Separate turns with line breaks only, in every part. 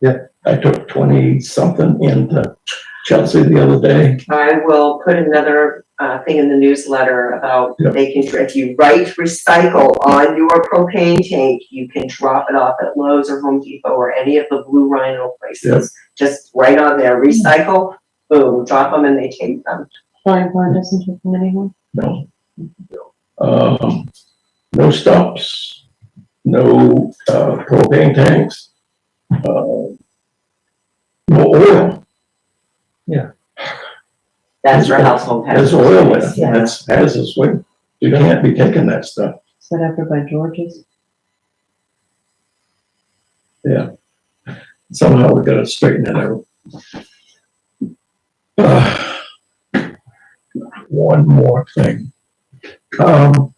Yeah. I took twenty something into Chelsea the other day.
I will put another uh thing in the newsletter about
Yeah.
making sure if you write recycle on your propane tank, you can drop it off at Lowe's or Home Depot or any of the Blue Rhino places. Just write on there, recycle, boom, drop them and they take them.
Planning board doesn't take them anymore.
No. Um, no stops, no, uh, propane tanks, uh, no oil.
That's your household hazard.
There's oil in it.
Yeah.
That's hazardous waste. You can't be taking that stuff.
Is that after by George's?
Somehow we gotta straighten it out. Uh, One more thing. Um,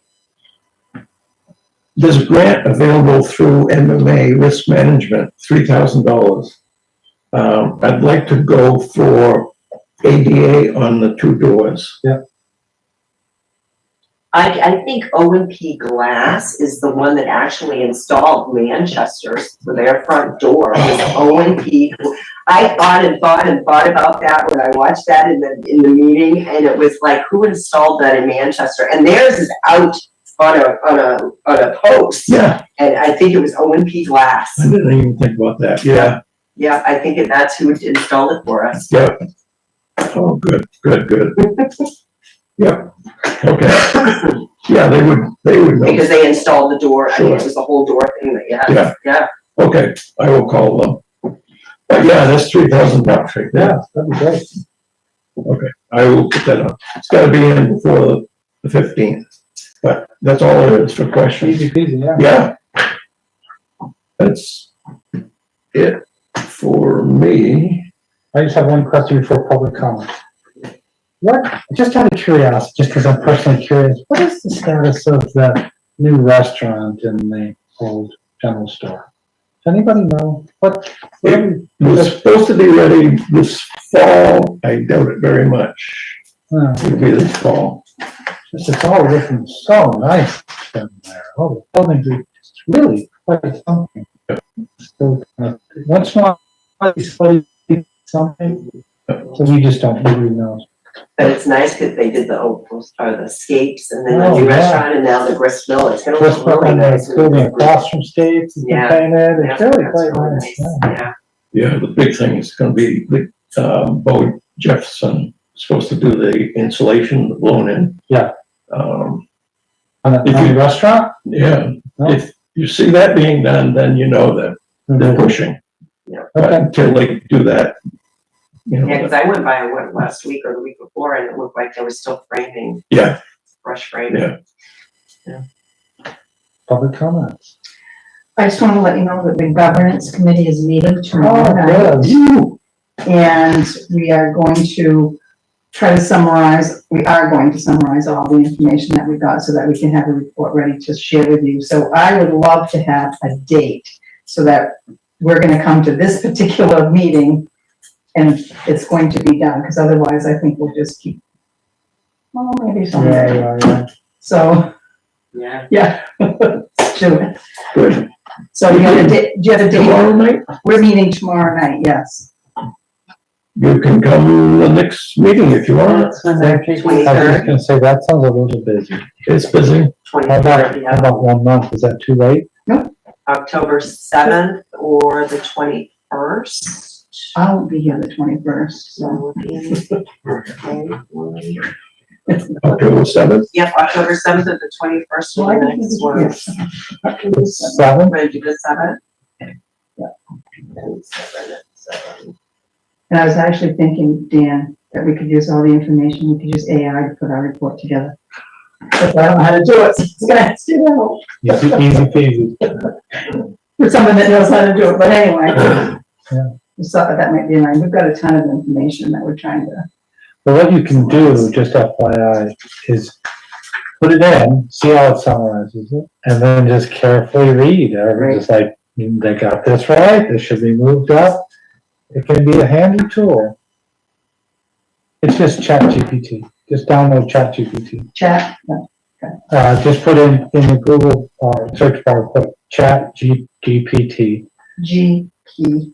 there's a grant available through MMA Risk Management, three thousand dollars. Um, I'd like to go for ADA on the two doors. Yeah.
I, I think O and P Glass is the one that actually installed Manchester's, for their front door was O and P. I thought and thought and thought about that when I watched that in the, in the meeting, and it was like, who installed that in Manchester? And theirs is out on a, on a, on a post,
Yeah,
and I think it was O and P Glass.
I didn't even think about that. Yeah,
Yeah, I think that's who installed it for us.
yeah. Oh, good, good, good. Yep, okay. Yeah, they would, they would know.
Because they installed the door, I mean, it
Sure.
was the whole door thing that, yeah,
Yeah.
yeah.
Okay, I will call them. But yeah, that's three thousand bucks right there.
Yeah, that'd be great.
Okay, I will put that up. It's gotta be in before the fifteenth, but that's all it is for questions.
Easy peasy, yeah.
Yeah. That's it for me.
I just have one question before public comment. What, just out of curiosity, just because I'm personally curious, what is the status of the new restaurant in the old general store? Does anybody know? What, what are we-
It was supposed to be ready this fall. I doubt it very much.
uh,
It'll be this fall.
just it's all looking so nice down there. Oh, the buildings are just really quite something. So, uh, once in a while, it's like something, so we just don't really know.
But it's nice because they did the old post, or the scapes and then the
Oh,
new
yeah.
restaurant and now the grist mill. It's gonna
Just
look really
building
nice.
that's
when
building
it's
across from States, it's been
Yeah.
painted,
Yeah,
it's really
that's
quite
really
nice.
nice.
yeah.
Yeah,
Yeah, the big thing is gonna be the, um, Bo Jefferson, is supposed to do the insulation blown in.
Yeah.
Um,
On the,
If
on the
you-
restaurant?
yeah,
No?
if you see that being done, then you know that they're pushing. But
Mm-hmm. Okay,
until they do that, you
yeah,
know,
because I went by, I went last week or the week before and it looked like they were still framing,
yeah,
brush framing.
yeah,
public comments.
I just want to let you know that the governance committee is meeting tomorrow night,
Oh, good.
Ooh,
and we are going to try to summarize, we are going to summarize all the information that we got so that we can have a report ready to share with you. So I would love to have a date so that we're going to come to this particular meeting and it's going to be done, because otherwise I think we'll just keep, well, maybe
Yeah,
someday.
yeah, yeah.
So,
Yeah.
yeah, let's do it.
good.
So you have a date, do you have a
Tomorrow
date?
night,
We're meeting tomorrow night, yes.
you can come to the next meeting if you want.
That's when they're
I
taking.
Twenty-
was just gonna say, that sounds a little busy.
It's busy.
How about,
Twenty-third,
how
yeah,
about one month, is that too late?
October seventh or the twenty-first.
I won't be here the twenty-first, so.
Yep,
October seventh,
October seventh or the twenty-first, one the next one.
Yes.
Seven?
Ready to do the seventh?
Yeah.
And seven, seven.
And I was actually thinking, Dan, that we could use all the information, we could use AI to put our report together. But I don't know how to do it, so it's gonna have to do that
Easy, easy peasy.
for someone that knows how to do it, but anyway. So that might be, nice. we've got a ton of information that we're trying to,
But what you can do, just FYI, is put it in, see how it summarizes it, and then just carefully read. Or just like, "Mm, they got this right, this should be moved up. It can be a handy tool. It's just ChatGPT. Just download ChatGPT.
chat,
Uh, just put in, in the Google, uh, search bar, put ChatGPT.
G P